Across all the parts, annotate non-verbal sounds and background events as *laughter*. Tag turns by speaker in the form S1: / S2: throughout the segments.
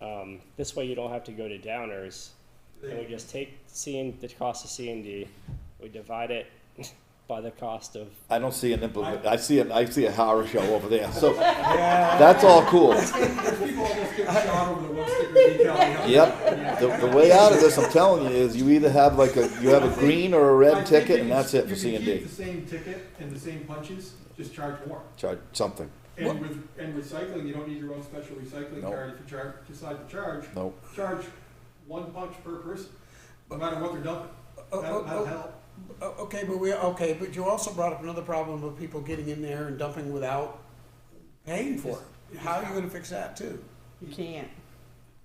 S1: Um, this way you don't have to go to downers. And we just take C and, the cost of C and D, we divide it *laughs* by the cost of,
S2: I don't see an implement, I see an, I see a horror show over there, so, that's all cool.
S3: People almost get shot over the one sticker decal. behind you.
S2: Yep, the, the way out of this, I'm telling you, is you either have like a, you have a green or a
S3: I think
S2: red ticket,
S3: you
S2: and
S3: can-
S2: that's it for C
S3: You
S2: and
S3: can keep
S2: D.
S3: the same ticket and the same punches, just charge more.
S2: Charge something,
S3: And with, and recycling, you don't need your own special recycling
S2: No.
S3: card if you charge, decide to charge.
S2: no.
S3: Charge one punch per person, no matter what they're dumping.
S4: Oh,
S3: That'll,
S4: oh,
S3: that'll
S4: oh.
S3: help.
S4: O- Okay, but we, okay, but you also brought up another problem of people getting in there and dumping without paying for it. How are you gonna fix that too?
S5: You can't.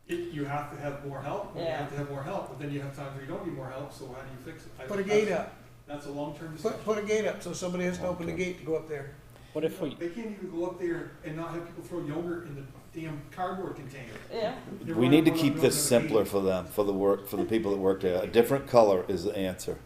S3: It, you have to have more help, and you
S5: Yeah.
S3: have to have more help, but then you have times where you don't need more help, so how do you fix it? I
S4: Put a
S3: think
S4: gate
S3: that's-
S4: up,
S3: That's a long-term decision.
S4: put, put a gate up so somebody has to open the gate to go up there.
S1: what if we,
S3: They can't even go up there and not have people throw yogurt in the damn cardboard container.
S5: Yeah.
S3: They're
S2: We need to
S3: running
S2: keep
S3: around
S2: this
S3: building a
S2: simpler for them, for the work, for the people that work there. A different color is the answer.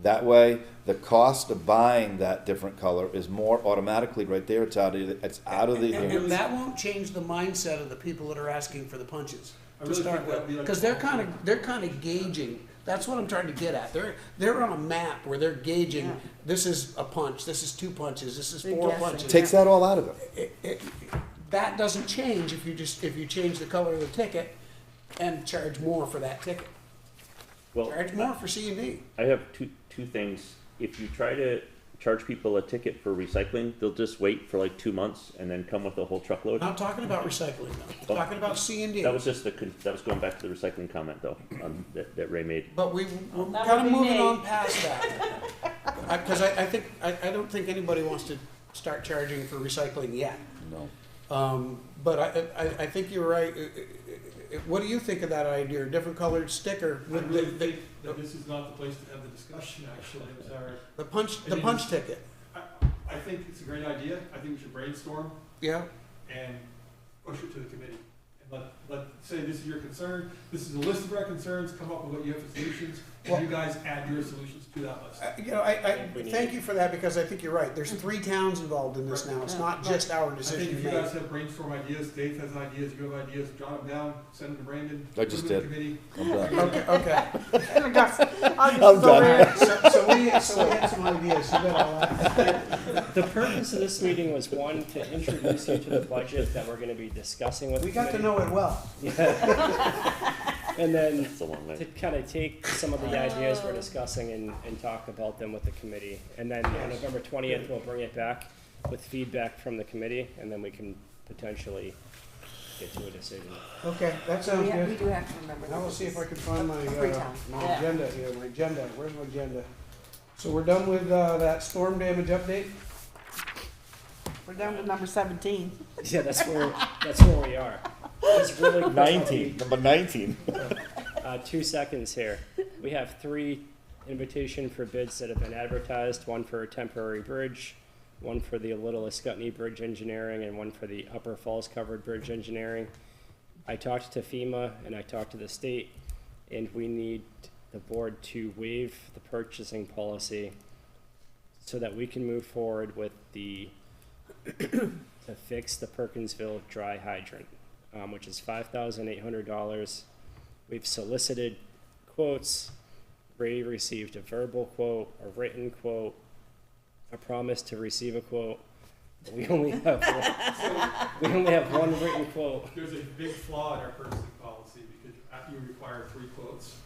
S2: That way, the cost of buying that different color is more automatically right there. It's out of, the- it's out of the.
S4: And, and that won't change the mindset of the people that are asking for the punches
S3: I
S4: to
S3: really
S4: start
S3: think that'd be
S4: with.
S3: like-
S4: Cause they're kinda, they're kinda gauging, that's what I'm trying to get at. They're, they're on a map where they're gauging,
S5: Yeah.
S4: this is a punch, this is two punches, this is
S5: They're
S4: four
S5: guessing.
S4: punches.
S2: Takes that all out of it.
S4: it, it, that doesn't change if you just, if you change the color of the ticket and charge more for that ticket.
S6: Well,
S4: Charge more for C and D.
S6: I have two, two things. If you try to charge people a ticket for recycling, they'll just wait for like two months and then come with a whole truckload.
S4: Not talking about recycling though, talking about C and D.
S6: That was just the, con- that was going back to the recycling comment though, um, that, that Ray made.
S4: But we, we're
S5: That
S4: kind
S5: would
S4: of
S5: be
S4: moving
S5: me.
S4: on past that. I, cause I, I think, I, I don't think anybody wants to start charging for recycling yet.
S2: No.
S4: Um, but I, I, I think you're right. Uh, uh, uh, What do you think of that idea, different colored sticker
S3: I
S4: with the,
S3: really
S4: the,
S3: think that this is not the place to have the discussion, actually, I'm sorry.
S4: the punch,
S3: I
S4: the
S3: mean,
S4: punch ticket?
S3: I, I think it's a great idea, I think we should brainstorm
S4: Yeah,
S3: and push it to the committee. And let, let, say this is your concern, this is a list of our concerns, come up with what you have for solutions, and you guys add your solutions to that list.
S4: I- You know, I, I,
S1: think we need-
S4: thank you for that, because I think you're right, there's three towns involved in this now, it's not just
S3: I
S4: our
S3: think
S4: decision
S3: if
S4: to
S3: you
S4: make.
S3: guys have brainstorm ideas, Dave has ideas, you have ideas, jot them down, send them to Brandon.
S2: I just
S3: put them
S2: did.
S3: in the Committee.
S2: I'm done.
S4: Okay, okay,
S5: I'm just
S2: I'm
S5: so
S2: done.
S5: weird.
S4: so, so we, so we had some ideas, you got all that.
S1: the purpose of this meeting was one, to introduce you to the budget that we're gonna be discussing with the
S4: we got to
S1: committee.
S4: know it well.
S1: And then
S6: It's a long
S1: to
S6: way.
S1: kind of take some of the ideas we're discussing and, and talk about them with the committee. And then on November twentieth, we'll bring it back with feedback from the committee, and then we can potentially get to a decision.
S4: Okay, that sounds
S7: Yeah, we
S4: good.
S7: do have to remember.
S4: And I will
S7: that
S4: see
S7: this
S4: if I
S7: is
S4: can find my,
S7: a free
S4: uh,
S7: town.
S4: my
S5: Yeah.
S4: agenda here, my agenda, where's my agenda? So we're done with, uh, that storm damage update?
S5: We're down to number seventeen.
S1: Yeah, that's where, that's where we are. It's really quick.
S2: number nineteen.
S1: Uh, two seconds here. We have three invitation for bids that have been advertised, one for a temporary bridge, one for the Little Escutney Bridge Engineering, and one for the Upper Falls Covered Bridge Engineering. I talked to FEMA and I talked to the state, and we need the board to waive the purchasing policy so that we can move forward with the, *coughs* to fix the Perkinsville dry hydrant, um, which is five thousand eight hundred dollars. We've solicited quotes. Ray received a verbal quote, a written quote, a promise to receive a quote. We only have
S5: *laughs*
S1: one, we only have one written quote.
S3: There's a big flaw in our purchasing policy because after you require three quotes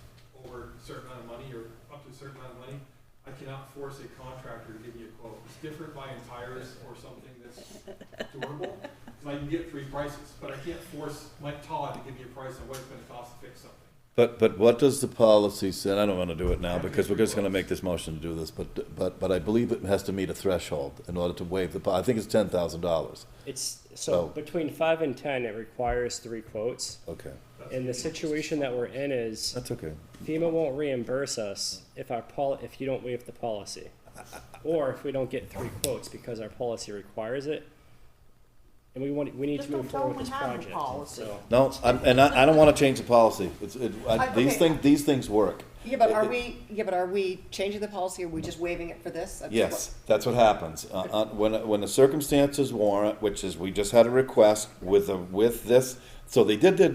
S3: over a certain amount of money or up to a certain amount of money, I cannot force a contractor to give me a quote. It's different by entires or something that's durable. 'cause I can get three prices, but I can't force Mike Todd to give me a price on what it's gonna cost to fix something.
S2: But, but what does the policy say, I don't wanna do it now, because we're just gonna make this motion to do this, but, but, but I believe it has to meet a threshold in order to waive the, po- I think it's ten thousand dollars.
S1: It's, so
S2: So-
S1: between five and ten, it requires three quotes.
S2: Okay,
S1: And the situation that we're in is
S2: that's okay.
S1: FEMA won't reimburse us if our pol, if you don't waive the policy. Or if we don't get three quotes because our policy requires it. And we want, we need
S5: Just
S1: to move
S5: don't tell
S1: forward with
S5: them
S1: this
S5: we have the
S1: project,
S5: policy.
S1: so.
S2: No, I'm, and I, I don't wanna change the policy, it's, it, I,
S7: I-
S2: these
S7: okay.
S2: things, these things work.
S7: Yeah, but
S2: It-
S7: are
S2: it-
S7: we, yeah, but are we changing the policy, or are we just waiving it for this? That's
S2: Yes, that's what happens. Uh, uh, When, when the circumstances warrant, which is, we just had a request with, a- with this, so they did their